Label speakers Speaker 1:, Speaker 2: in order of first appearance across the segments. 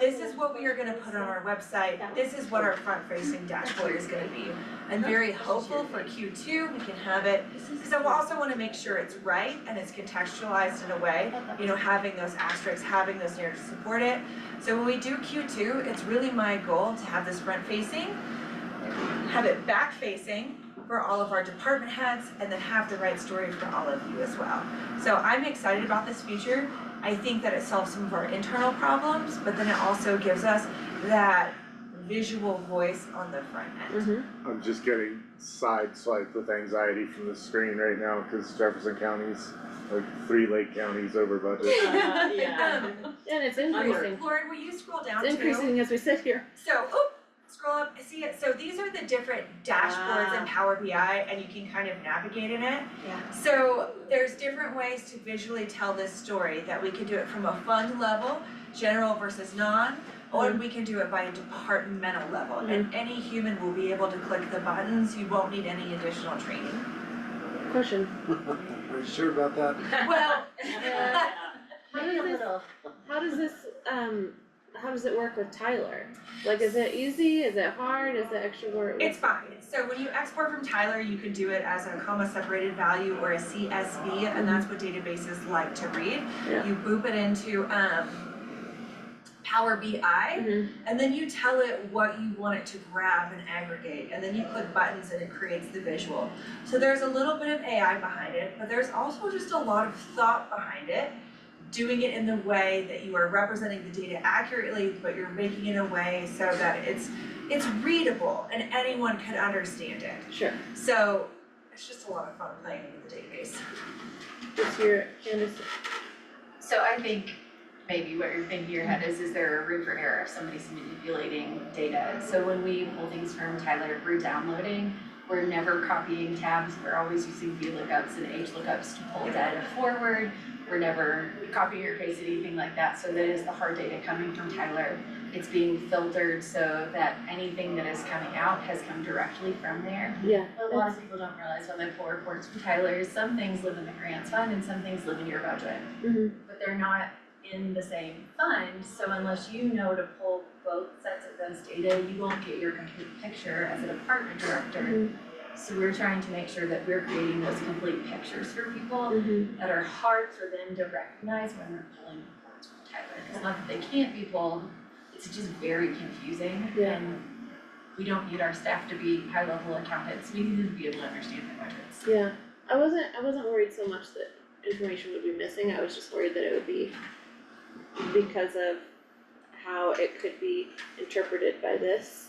Speaker 1: this is what we are gonna put on our website, this is what our front-facing dashboard is gonna be. I'm very hopeful for Q two, we can have it, because I also wanna make sure it's right and it's contextualized in a way, you know, having those asterisks, having those narratives support it. So when we do Q two, it's really my goal to have this front-facing, have it back-facing for all of our department heads, and then have the right story for all of you as well. So I'm excited about this feature, I think that it solves some of our internal problems, but then it also gives us that visual voice on the front end.
Speaker 2: I'm just getting sideswiped with anxiety from the screen right now because Jefferson County's like three Lake counties over budget.
Speaker 3: Uh, yeah.
Speaker 1: Um,
Speaker 3: And it's increasing,
Speaker 1: Lauren, will you scroll down too?
Speaker 3: it's increasing as we sit here.
Speaker 1: So, oop, scroll up, see it, so these are the different dashboards in
Speaker 3: Ah.
Speaker 1: Power BI and you can kind of navigate in it.
Speaker 4: Yeah.
Speaker 1: So there's different ways to visually tell this story, that we can do it from a fund level, general versus non, or we can do it by a departmental level, and any human will be able to click the buttons, you won't need any additional training.
Speaker 3: Question,
Speaker 5: Are you sure about that?
Speaker 1: Well,
Speaker 3: how does this, how does this, um, how does it work with Tyler? Like, is it easy, is it hard, is it extra work?
Speaker 1: It's fine, so when you export from Tyler, you can do it as a comma separated value or a CSV, and that's what databases like to read.
Speaker 3: Yeah.
Speaker 1: You boop it into um Power BI,
Speaker 3: Mhm.
Speaker 1: and then you tell it what you want it to grab and aggregate, and then you click buttons and it creates the visual. So there's a little bit of AI behind it, but there's also just a lot of thought behind it. Doing it in the way that you are representing the data accurately, but you're making it in a way so that it's it's readable and anyone could understand it.
Speaker 3: Sure,
Speaker 1: So it's just a lot of fun playing with the database.
Speaker 3: it's your, and it's,
Speaker 6: So I think maybe what you're thinking in your head is, is there a room for error if somebody's manipulating data? So when we pull things from Tyler, we're downloading, we're never copying tabs, we're always using VLOOKUPs and HLOOKUPs to pull data forward. We're never copying or pasting anything like that, so that is the hard data coming from Tyler. It's being filtered so that anything that is coming out has come directly from there.
Speaker 3: yeah,
Speaker 6: But a lot of people don't realize when they pull reports from Tyler, is some things live in the grants fund and some things live in your budget
Speaker 3: mhm,
Speaker 6: but they're not in the same fund, so unless you know to pull both sets of those data, you won't get your complete picture as a department director.
Speaker 3: Mhm.
Speaker 6: So we're trying to make sure that we're creating those complete pictures for people
Speaker 3: mhm,
Speaker 6: that are hard for them to recognize when they're pulling reports from Tyler. It's not that they can't be pulled, it's just very confusing
Speaker 3: Yeah.
Speaker 6: and we don't need our staff to be high-level accountants, we need them to be able to understand their budgets.
Speaker 3: yeah. I wasn't, I wasn't worried so much that information would be missing, I was just worried that it would be because of how it could be interpreted by this.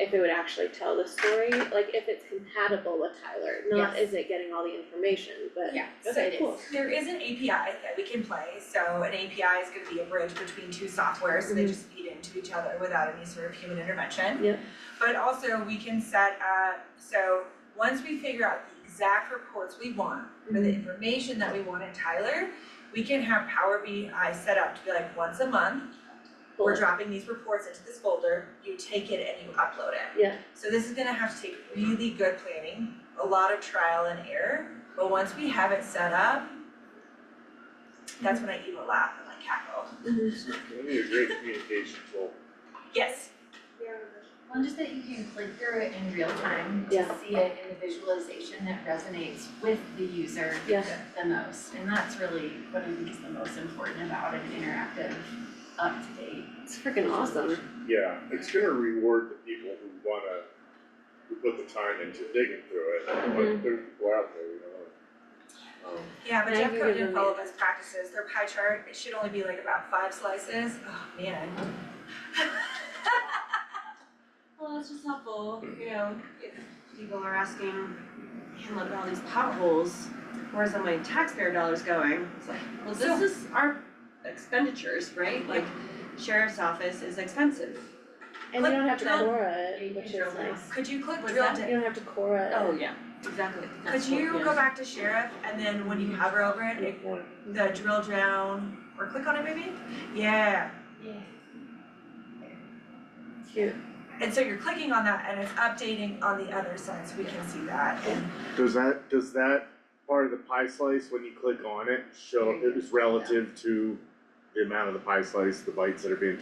Speaker 3: If it would actually tell the story, like if it's compatible with Tyler, not
Speaker 6: Yes.
Speaker 3: is it getting all the information, but.
Speaker 1: Yeah, so
Speaker 3: Okay,
Speaker 1: it
Speaker 3: cool.
Speaker 1: is. There is an API that we can play, so an API is gonna be a bridge between two software, so they
Speaker 3: Mhm.
Speaker 1: just feed into each other without any sort of human intervention.
Speaker 3: Yep.
Speaker 1: But also we can set up, so once we figure out the exact reports we want for the information that we want in Tyler, we can have Power BI set up to be like once a month, we're dropping these reports into this folder, you take it and you upload it.
Speaker 3: Yeah.
Speaker 1: So this is gonna have to take really good planning, a lot of trial and error, but once we have it set up, that's when I even laugh and like cackle.
Speaker 2: We need a great communication tool.
Speaker 1: Yes,
Speaker 6: Well, just that you can click through it in real time to
Speaker 3: Yeah.
Speaker 6: see it in the visualization that resonates with the user
Speaker 3: Yeah.
Speaker 6: the most. And that's really what I think is the most important about an interactive, up-to-date.
Speaker 3: It's freaking awesome.
Speaker 2: Yeah, it's gonna reward the people who wanna, who put the time into digging through it, but
Speaker 3: Mhm.
Speaker 2: there's people out there, you know. Um,
Speaker 1: yeah, but
Speaker 3: Now
Speaker 1: Jeff
Speaker 3: you're
Speaker 1: Cohen
Speaker 3: giving
Speaker 1: didn't
Speaker 3: me
Speaker 1: follow
Speaker 3: that.
Speaker 1: best practices, their pie chart, it should only be like about five slices, oh man.
Speaker 4: Well, it's just helpful, you know, if people are asking, man, look at all these potholes, where's all my taxpayer dollars going? It's like, well, this is our expenditures, right? Like sheriff's office is expensive.
Speaker 3: And you don't have to
Speaker 4: Click drill.
Speaker 3: Cora
Speaker 6: Yeah, you
Speaker 3: it,
Speaker 6: can
Speaker 3: which is
Speaker 6: drill down.
Speaker 3: nice.
Speaker 1: Could you click
Speaker 4: What's
Speaker 1: drill
Speaker 4: that?
Speaker 1: down?
Speaker 3: You don't have to Cora it.
Speaker 4: yeah, exactly.
Speaker 1: Could you go back to sheriff and then when you hover over it, it- the drill down, or click on it maybe? Yeah,
Speaker 6: Yeah.
Speaker 3: Cute.
Speaker 1: And so you're clicking on that and it's updating on the other side, so we can see that and
Speaker 2: Does that, does that part of the pie slice, when you Mm-hmm. click on it, show, it is relative to the amount of the pie slice, the bites that are being